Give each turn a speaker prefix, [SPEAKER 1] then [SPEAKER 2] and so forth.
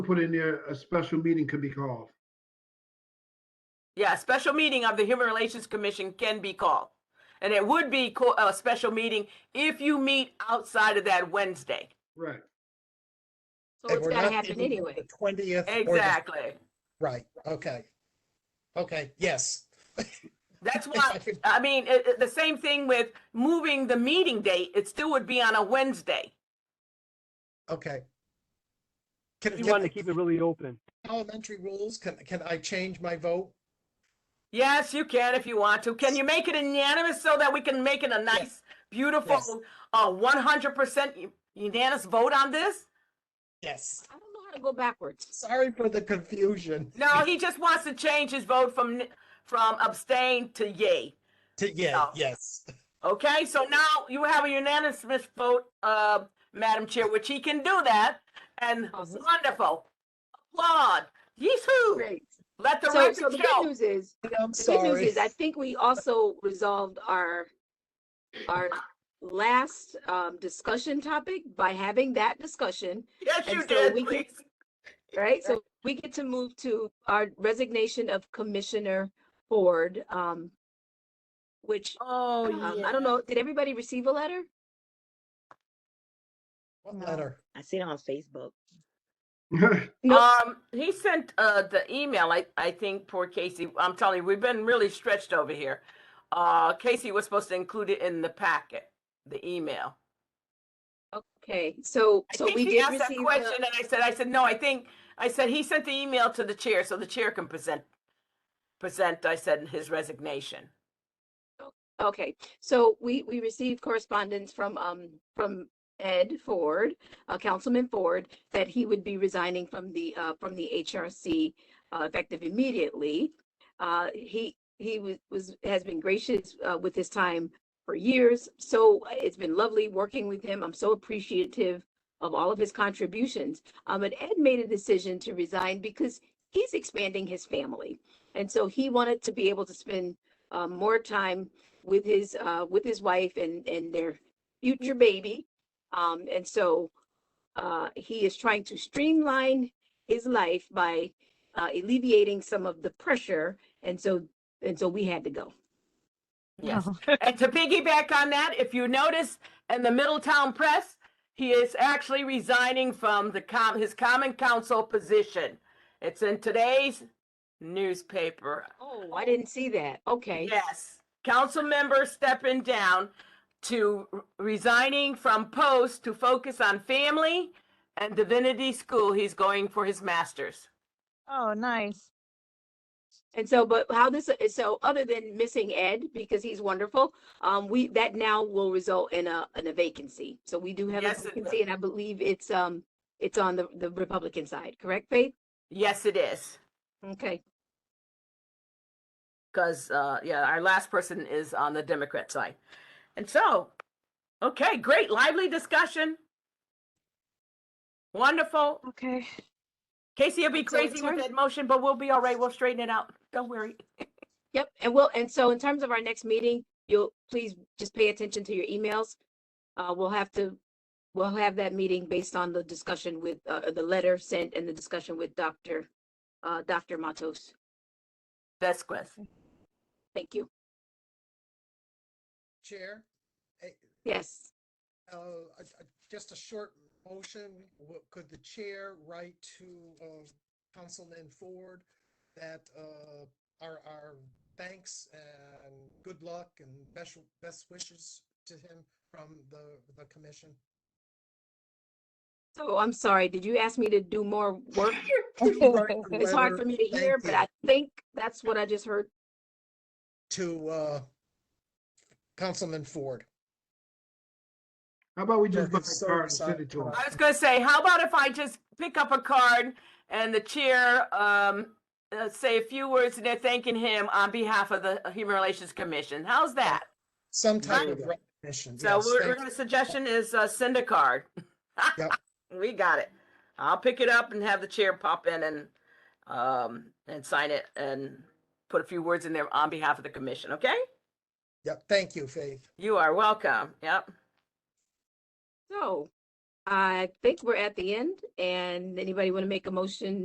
[SPEAKER 1] put in there, a special meeting could be called.
[SPEAKER 2] Yeah, a special meeting of the Human Relations Commission can be called. And it would be co- a special meeting if you meet outside of that Wednesday.
[SPEAKER 1] Right.
[SPEAKER 3] So it's
[SPEAKER 4] we're
[SPEAKER 3] gotta
[SPEAKER 4] not
[SPEAKER 3] happen
[SPEAKER 4] meeting
[SPEAKER 3] anyway.
[SPEAKER 4] The twentieth.
[SPEAKER 2] Exactly.
[SPEAKER 4] Right, okay. Okay, yes.
[SPEAKER 2] That's why, I mean, it, it- the same thing with moving the meeting date, it still would be on a Wednesday.
[SPEAKER 4] Okay. Can,
[SPEAKER 5] We
[SPEAKER 4] can
[SPEAKER 5] wanted to
[SPEAKER 4] the
[SPEAKER 5] keep it really open.
[SPEAKER 4] elementary rules, can, can I change my vote?
[SPEAKER 2] Yes, you can if you want to. Can you make it unanimous so that we can make it a nice,
[SPEAKER 4] Yes.
[SPEAKER 2] beautiful, uh, 100% unanimous vote on this?
[SPEAKER 4] Yes.
[SPEAKER 3] I don't know how to go backwards.
[SPEAKER 4] Sorry for the confusion.
[SPEAKER 2] No, he just wants to change his vote from, from abstain to yay.
[SPEAKER 4] To, yeah,
[SPEAKER 2] No.
[SPEAKER 4] yes,
[SPEAKER 2] Okay, so now you have a unanimous vote, uh, Madam Chair, which he can do that. And
[SPEAKER 3] Awesome.
[SPEAKER 2] wonderful. Applaud. Yee-hoo.
[SPEAKER 3] Great.
[SPEAKER 2] Let the
[SPEAKER 3] So, so the
[SPEAKER 2] record
[SPEAKER 3] good
[SPEAKER 2] show.
[SPEAKER 3] news is,
[SPEAKER 4] I'm
[SPEAKER 3] the good news
[SPEAKER 4] sorry.
[SPEAKER 3] is, I think we also resolved our, our last, um, discussion topic by having that discussion,
[SPEAKER 2] Yes,
[SPEAKER 3] and
[SPEAKER 2] you
[SPEAKER 3] so
[SPEAKER 2] did,
[SPEAKER 3] we can-
[SPEAKER 2] please.
[SPEAKER 3] right? So we get to move to our resignation of Commissioner Ford, um, which,
[SPEAKER 2] Oh,
[SPEAKER 3] um, I don't know, did everybody receive a letter?
[SPEAKER 4] What letter?
[SPEAKER 6] I seen it on Facebook.
[SPEAKER 3] No.
[SPEAKER 2] Um, he sent, uh, the email, I, I think, poor Casey. I'm telling you, we've been really stretched over here. Uh, Casey was supposed to include it in the packet, the email.
[SPEAKER 3] Okay, so,
[SPEAKER 2] I
[SPEAKER 3] so
[SPEAKER 2] think
[SPEAKER 3] we
[SPEAKER 2] he
[SPEAKER 3] did
[SPEAKER 2] asked that
[SPEAKER 3] receive,
[SPEAKER 2] question
[SPEAKER 3] the-
[SPEAKER 2] and I said, I said, no, I think, I said, he sent the email to the chair so the chair can present, present, I said, his resignation.
[SPEAKER 3] okay, so we, we received correspondence from, um, from Ed Ford, uh, Councilman Ford, that he would be resigning from the, uh, from the HRC, uh, effective immediately. Uh, he, he was, was, has been gracious, uh, with his time for years, so it's been lovely working with him. I'm so appreciative of all of his contributions. Um, but Ed made a decision to resign because he's expanding his family. And so he wanted to be able to spend, uh, more time with his, uh, with his wife and, and their future baby. Um, and so, uh, he is trying to streamline his life by, uh, alleviating some of the pressure. And so, and so we had to go.
[SPEAKER 2] Yes. And to piggyback on that, if you notice in the Middletown Press, he is actually resigning from the com, his common council position. It's in today's newspaper.
[SPEAKER 3] Oh, I didn't see that. Okay.
[SPEAKER 2] Yes, council member stepping down to r- resigning from post to focus on family and divinity school. He's going for his master's.
[SPEAKER 6] Oh, nice.
[SPEAKER 3] And so, but how this, so other than missing Ed, because he's wonderful, um, we, that now will result in a, in a vacancy. So we do have a
[SPEAKER 2] Yes, it will.
[SPEAKER 3] vacancy and I believe it's, um, it's on the, the Republican side, correct, Faith?
[SPEAKER 2] Yes, it is.
[SPEAKER 3] Okay,
[SPEAKER 2] because uh, yeah, our last person is on the Democrat side. And so, okay, great, lively discussion. Wonderful.
[SPEAKER 6] Okay.
[SPEAKER 2] Casey will be
[SPEAKER 3] So in
[SPEAKER 2] crazy with
[SPEAKER 3] terms-
[SPEAKER 2] that motion, but we'll be all right. We'll straighten it out. Don't worry.
[SPEAKER 3] yep. And we'll and so in terms of our next meeting, you'll, please just pay attention to your emails. Uh, we'll have to, we'll have that meeting based on the discussion with, uh, the letter sent and the discussion with Dr., uh, Dr. Matos.
[SPEAKER 2] That's good.
[SPEAKER 3] Thank you.
[SPEAKER 4] Chair? Eh,
[SPEAKER 3] Yes.
[SPEAKER 4] uh, a- a- just a short motion, Wh- could the chair write to, uh, Councilman Ford that, uh, our, our thanks and good luck and best, best wishes to him from the, the commission?
[SPEAKER 3] So I'm sorry, did you ask me to do more work? It's
[SPEAKER 4] It's
[SPEAKER 3] hard for me to hear, but I think that's what I just heard.
[SPEAKER 4] To, uh, Councilman Ford.
[SPEAKER 1] How about we
[SPEAKER 4] Yeah,
[SPEAKER 1] just buy
[SPEAKER 4] it's
[SPEAKER 1] a
[SPEAKER 4] so
[SPEAKER 1] card and send
[SPEAKER 4] exciting.
[SPEAKER 1] it to them?
[SPEAKER 2] I was gonna say, how about if I just pick up a card and the chair um, uh, say a few words in there thanking him on behalf of the Human Relations Commission? How's that?
[SPEAKER 4] Some type
[SPEAKER 1] Right.
[SPEAKER 4] of recognition,
[SPEAKER 2] So
[SPEAKER 4] yes,
[SPEAKER 2] we're,
[SPEAKER 4] thank
[SPEAKER 2] we're gonna suggestion is uh, send a card.
[SPEAKER 4] Yep.
[SPEAKER 2] We got it. I'll pick it up and have the chair pop in and um and sign it and put a few words in there on behalf of the commission. Okay,
[SPEAKER 4] Yep, thank you, Faith.
[SPEAKER 2] you are welcome. Yep.
[SPEAKER 3] So I think we're at the end and anybody want to make a motion